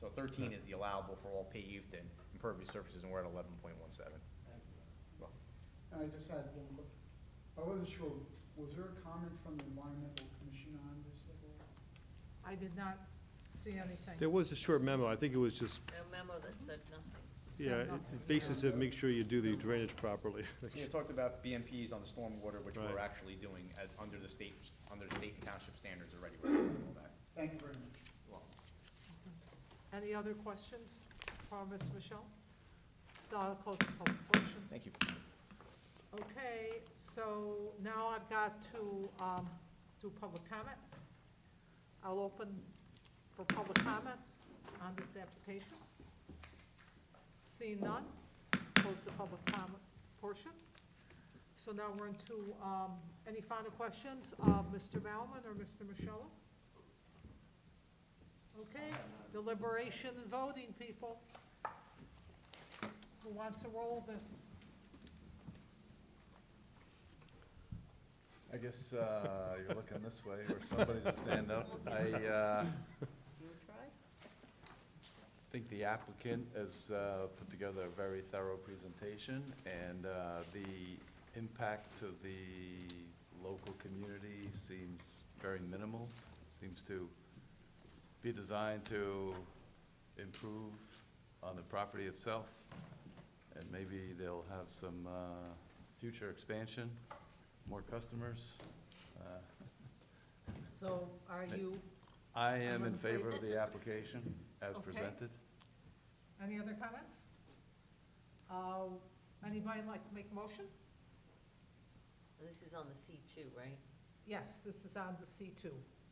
So thirteen is the allowable for all paved and impervious surfaces, and we're at eleven point one seven. I just had one quick, I wasn't sure, was there a comment from the environmental commission on this at all? I did not see There anything. was a short memo, I think it was just, A memo that said nothing. yeah, it- it basis of make sure you do the drainage properly. Yeah, talked about BMPs on the stormwater, which we're Right. actually doing as, under the state, under the state and township standards already, we're doing all that. Thank you very much. Well, Any other questions for Ms. Michelle? So I'll close the public portion. Thank you. Okay, so now I've got to um, do public comment. I'll open for public comment on this application. Seeing none, close the public comment portion. So now we're into, um, any final questions of Mr. Bauman or Mr. Michello? Okay, deliberation and voting, people. Who wants to roll this? I guess uh, you're looking this way or somebody to stand up. I uh, You try? think the applicant has uh, put together a very thorough presentation, and uh, the impact to the local community seems very minimal, seems to be designed to improve on the property itself, and maybe they'll have some uh, future expansion, more customers. Uh, So are you, I am in favor of the application as Okay. presented. any other comments? Uh, Anybody like to make a motion? And This is on the C two, right? Yes, this is on the C2,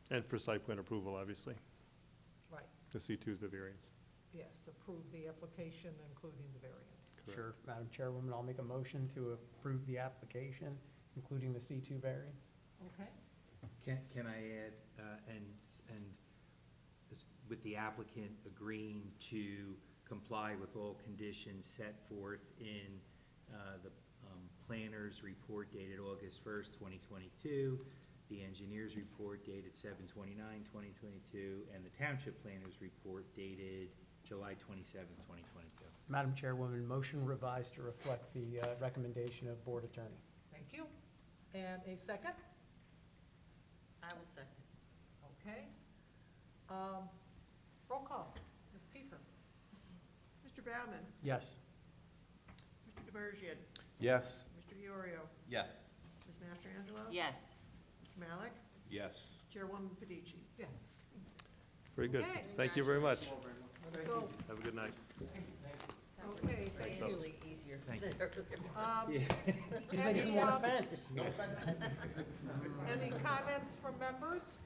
And for site plan approval, obviously. right, The C2 is the variance. yes, approve the application, including the variance. Correct. Sure, Madam Chairwoman, I'll make a motion to approve the application, including the C2 variance. Okay, Can, can I add, uh, and, and is- with the applicant agreeing to comply with all conditions set forth in uh, the um, planner's report dated August first, twenty twenty-two, the engineer's report dated 2022, and the township planner's report dated July twenty-seventh, twenty twenty-two. Madam Chairwoman, motion revised to reflect the uh, recommendation of Board Attorney. thank you. And a second? I will second. Okay. Um, Roll call, Ms. Kiefer. Mr. Bauman, Yes. Mr. DeBergian, Yes? Mr. Yorio, Yes. Ms. Mastrangelo. Yes, Mr. Malik, Yes. Chairwoman Padici. Yes. Very good. Okay. Thank you very much. Go. Have a good night. that was Okay, thank you. substantially easier Thank than you. earlier. Um, He's like, any, "You want um, a fence?" Any comments from members?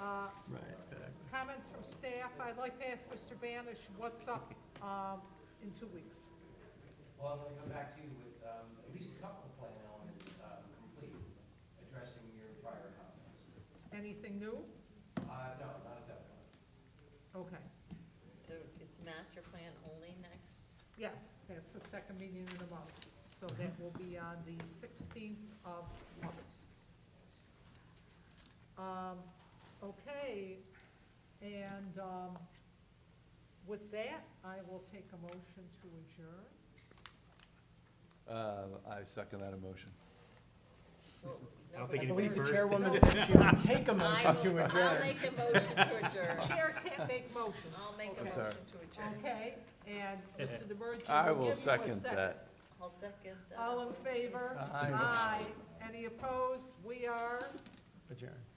Uh, Comments from staff, I'd like to ask Mr. Banish, what's up um, in two weeks? Well, I'm gonna come back to you with, um, at least a couple of plan elements, um, complete, addressing your prior comments. Anything new? Uh, no, not at that point. Okay, So it's master plan only next? yes, that's the second meeting in the month, so that will be on the sixteenth of August. Um, Okay, and um, with that, I will take a motion to adjourn. Uh, I second that emotion. Well, I don't no, think I it- but- believe the Reverse. chairwoman said she would take a I will- motion to I'll adjourn. make a motion to adjourn. Chair can't make motions. I'll make a Okay. sorry. motion to adjourn. Okay, and Mr. DeBerge, I will will give you a second second. that. I'll second that. All in favor? Aye. Any opposed? We are Adjourn.